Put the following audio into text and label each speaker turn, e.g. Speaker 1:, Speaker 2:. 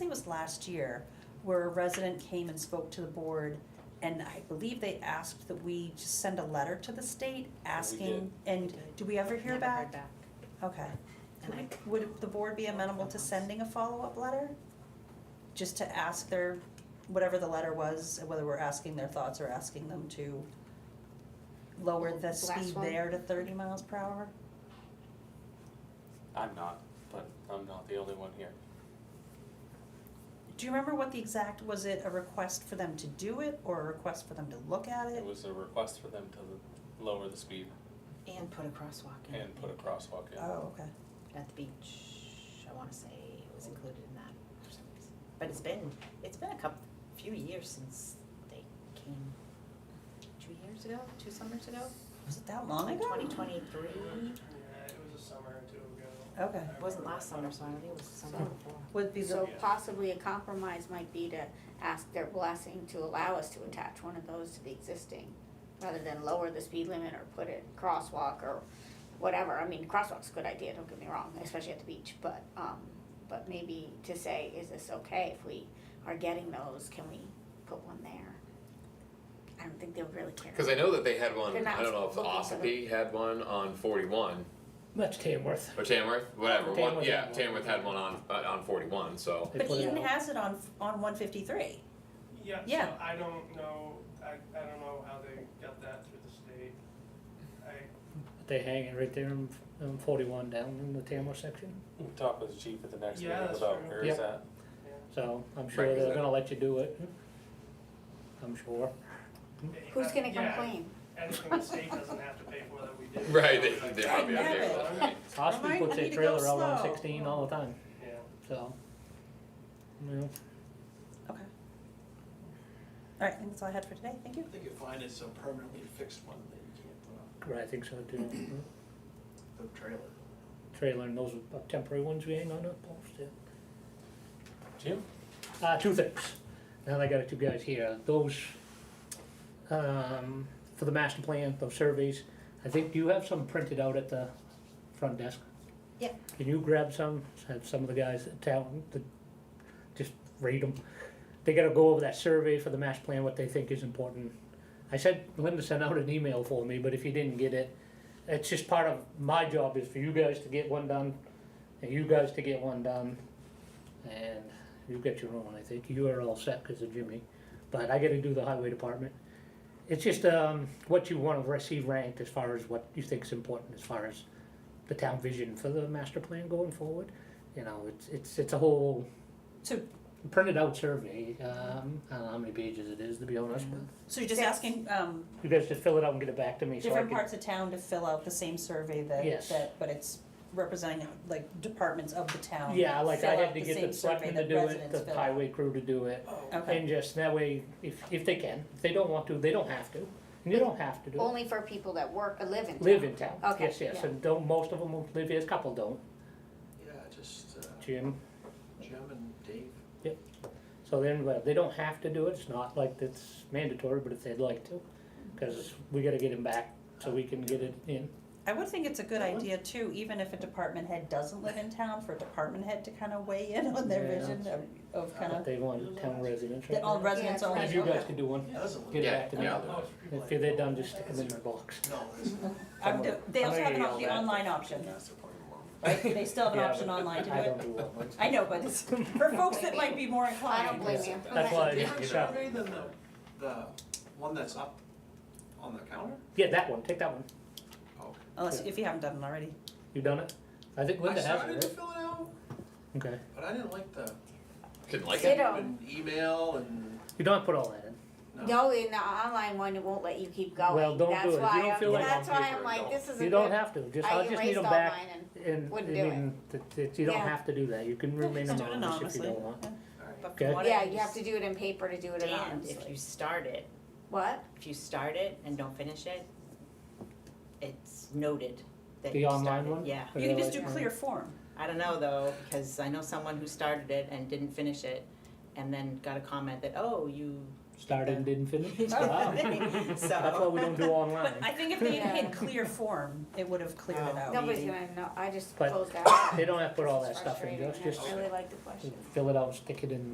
Speaker 1: was last year, where a resident came and spoke to the board, and I believe they asked that we just send a letter to the state asking, and do we ever hear
Speaker 2: Never
Speaker 1: back?
Speaker 2: heard back.
Speaker 1: Okay.
Speaker 2: And I,
Speaker 1: Would the board be amenable to sending a follow-up letter? Just to ask their, whatever the letter was, whether we're asking their thoughts or asking them to lower the
Speaker 2: Last
Speaker 1: speed
Speaker 2: one.
Speaker 1: there to thirty miles per hour?
Speaker 3: I'm not, but I'm not the only one here.
Speaker 1: Do you remember what the exact, was it a request for them to do it or a request for them to look at
Speaker 3: It
Speaker 1: it?
Speaker 3: was a request for them to lower the speed
Speaker 2: and put a crosswalk in.
Speaker 3: and put a crosswalk in.
Speaker 1: Oh, okay.
Speaker 2: At the beach, I wanna say it was included in that for some reason. But it's been, it's been a couple, few years since they came, two years ago, two summers ago?
Speaker 1: Was it that long
Speaker 2: Like
Speaker 1: ago?
Speaker 2: twenty twenty-three,
Speaker 4: Yeah, it was a summer or two ago.
Speaker 1: Okay.
Speaker 4: I
Speaker 2: it wasn't
Speaker 4: remember
Speaker 2: last
Speaker 4: that.
Speaker 2: summer, so I don't think it was the summer before.
Speaker 1: Would be the,
Speaker 5: So possibly a compromise might be to ask their blessing to allow us to attach one of those to the existing, rather than lower the speed limit or put it crosswalk or whatever. I mean, crosswalk's a good idea, don't get me wrong, especially at the beach, but, um, but maybe to say, is this okay if we are getting those, can we put one there? I don't think they'll really care.
Speaker 6: Because I know that they had one.
Speaker 5: They're not
Speaker 6: I don't know if
Speaker 5: looking for them.
Speaker 6: Ossipee had one on 41
Speaker 7: That's Tamworth.
Speaker 6: or Tamworth, whatever. one,
Speaker 7: Tamworth
Speaker 6: yeah,
Speaker 7: had one.
Speaker 6: Tamworth had one on uh, on 41. So
Speaker 7: They
Speaker 1: but
Speaker 7: put it
Speaker 1: Eaton
Speaker 7: out.
Speaker 1: has it on, on one fifty-three.
Speaker 4: Yeah,
Speaker 1: Yeah.
Speaker 4: so I don't know, I, I don't know how they got that through the state. I,
Speaker 7: They hang it right there in, in 41 down in the Tamworth section.
Speaker 3: We talked with the chief at the next
Speaker 4: Yeah,
Speaker 3: meeting
Speaker 4: that's
Speaker 3: about
Speaker 4: true.
Speaker 3: where is
Speaker 7: Yeah.
Speaker 3: that?
Speaker 7: So I'm sure
Speaker 6: Right, is
Speaker 7: they're
Speaker 6: that-
Speaker 7: going to let you do it. I'm sure.
Speaker 5: Who's gonna
Speaker 4: yeah,
Speaker 5: complain?
Speaker 4: Anything the state doesn't have to pay for that we did.
Speaker 6: right, they they
Speaker 1: I
Speaker 6: probably out there.
Speaker 1: never-
Speaker 6: with that.
Speaker 7: Ospey
Speaker 1: Remind
Speaker 7: puts
Speaker 1: me
Speaker 7: their
Speaker 1: to go
Speaker 7: trailer out on
Speaker 1: slow.
Speaker 7: 16 all the time.
Speaker 4: Yeah.
Speaker 7: So, you know,
Speaker 1: Okay. All right, I think that's all I had for today, thank you.
Speaker 8: I think you find it's a permanently fixed one that you can't put on
Speaker 7: I think so too.
Speaker 8: the trailer.
Speaker 7: trailer and those are temporary ones we hang on that post. Yeah.
Speaker 3: Jim?
Speaker 7: Uh, two things. Now that I got two guys here. Those, um, for the master plan, those surveys, I think, do you have some printed out at the front desk?
Speaker 1: Yep.
Speaker 7: Can you grab some, have some of the guys at town, to just read them? They gotta go over that survey for the master plan, what they think is important. I said Linda sent out an email for me, but if you didn't get it, it's just part of, my job is for you guys to get one done, and you guys to get one done, and You've got your own, I think. You are all set because of Jimmy. But I gotta do the highway department. It's just, um, what you wanna receive ranked as far as what you think's important, as far as the town vision for the master plan going forward. You know, it's, it's, it's a whole
Speaker 1: So,
Speaker 7: printed out survey, um, I don't know how many pages it is, to be honest, but
Speaker 1: so you're just
Speaker 5: Six.
Speaker 1: asking, um,
Speaker 7: you guys just fill it out and get it back to me so I
Speaker 1: different
Speaker 7: can.
Speaker 1: parts of town to fill out the same survey that,
Speaker 7: Yes.
Speaker 1: that, but it's representing like departments of the town.
Speaker 7: Yeah, like I
Speaker 1: Fill
Speaker 7: had
Speaker 1: out
Speaker 7: to
Speaker 1: Um, the
Speaker 7: get
Speaker 1: same
Speaker 7: the selectmen
Speaker 1: survey
Speaker 7: to do
Speaker 1: that
Speaker 7: it,
Speaker 1: residents
Speaker 7: the
Speaker 1: fill out.
Speaker 7: highway crew to do it.
Speaker 1: Okay,
Speaker 7: And just that way, if, if they can, if they don't want to, they don't have to, and you don't have to do it.
Speaker 5: Only for people that work or live in town.
Speaker 7: Live in town,
Speaker 5: Okay,
Speaker 7: yes, yes,
Speaker 5: yeah.
Speaker 7: and don't, most of them will live here, a couple don't,
Speaker 8: Yeah, just uh,
Speaker 7: Jim,
Speaker 8: Jim and Dave.
Speaker 7: so then, well, they don't have to do it, it's not like it's mandatory, but if they'd like to, cause we gotta get him back, so we can get it in.
Speaker 1: I would think it's a good
Speaker 7: That one?
Speaker 1: idea too, even if a department head doesn't live in town, for a department head to kind of weigh in on their
Speaker 7: Yeah.
Speaker 1: vision of, of kind
Speaker 7: But
Speaker 1: of,
Speaker 7: they want town residents,
Speaker 1: that all
Speaker 7: right?
Speaker 1: residents
Speaker 5: Yeah,
Speaker 1: only,
Speaker 7: If you
Speaker 1: okay.
Speaker 7: guys could do one,
Speaker 8: Yeah, doesn't look.
Speaker 7: get it
Speaker 6: Yeah,
Speaker 7: back to me,
Speaker 6: yeah.
Speaker 4: Most people
Speaker 7: if they're done, just stick them in my box.
Speaker 8: No, it's.
Speaker 1: I'm- They also have an,
Speaker 7: Someone-
Speaker 1: op- the online option,
Speaker 8: That's the point of
Speaker 1: right?
Speaker 8: one.
Speaker 1: They still have an
Speaker 7: Yeah,
Speaker 1: option
Speaker 7: but
Speaker 1: online to do
Speaker 7: I
Speaker 1: it.
Speaker 7: don't do long ones.
Speaker 1: I know, but it's for folks that might be more
Speaker 5: I don't
Speaker 1: inclined.
Speaker 5: blame you.
Speaker 7: That's why I didn't
Speaker 8: Different
Speaker 7: get that.
Speaker 8: survey than the, the one that's up on the counter?
Speaker 7: Yeah, that one, take that one,
Speaker 8: Oh.
Speaker 1: Unless, if you haven't done it already.
Speaker 7: you done it? I think
Speaker 8: I
Speaker 7: Linda has
Speaker 8: started
Speaker 7: it,
Speaker 8: to
Speaker 7: right?
Speaker 8: fill it out,
Speaker 7: Okay,
Speaker 8: but I didn't like the.
Speaker 6: Didn't like it.
Speaker 5: Ditto.
Speaker 8: And email and,
Speaker 7: you don't have to put all that in,
Speaker 8: no,
Speaker 5: No, in the online one, it won't let you keep going.
Speaker 7: Well, don't do
Speaker 5: That's
Speaker 7: it. If you
Speaker 5: why
Speaker 7: don't
Speaker 5: I'm-
Speaker 7: feel like
Speaker 5: That's
Speaker 6: on
Speaker 5: why
Speaker 6: paper,
Speaker 5: I'm like,
Speaker 6: don't.
Speaker 5: this isn't
Speaker 7: you don't
Speaker 5: good.
Speaker 7: have to, just,
Speaker 5: I
Speaker 7: I just need
Speaker 5: erased
Speaker 7: them
Speaker 5: all
Speaker 7: back.
Speaker 5: mine and,
Speaker 7: And,
Speaker 5: Wouldn't
Speaker 7: I
Speaker 5: do
Speaker 7: mean, that- that you don't
Speaker 5: Yeah.
Speaker 7: have to do that, you can remain
Speaker 1: Just do it
Speaker 7: anonymous if
Speaker 1: anonymously.
Speaker 7: you don't want.
Speaker 8: alright.
Speaker 2: But
Speaker 7: Okay.
Speaker 2: from what
Speaker 5: yeah,
Speaker 2: I
Speaker 5: you have to
Speaker 2: understand,
Speaker 5: do it in paper to do it anonymously.
Speaker 2: if you start it,
Speaker 5: What?
Speaker 2: if you start it and don't finish it, it's noted that
Speaker 7: The
Speaker 2: you started.
Speaker 7: online one?
Speaker 2: Yeah,
Speaker 1: You can just do
Speaker 7: Really?
Speaker 1: clear form.
Speaker 2: I don't know though, because I know someone who started it and didn't finish it, and then got a comment that, oh, you
Speaker 7: uh, Start and didn't finish? Wow. That's why
Speaker 2: So,
Speaker 7: we don't do online.
Speaker 1: But Oh. I think if they had
Speaker 5: Yeah.
Speaker 1: hit clear form, it would have cleared
Speaker 5: Oh.
Speaker 1: it out.
Speaker 5: Nobody's gonna know, I just
Speaker 7: But
Speaker 5: closed out.
Speaker 7: They don't have to put all that
Speaker 5: It's
Speaker 7: stuff in,
Speaker 5: frustrating,
Speaker 7: just,
Speaker 5: and
Speaker 7: just
Speaker 5: I really like the question.
Speaker 7: fill it out, stick it in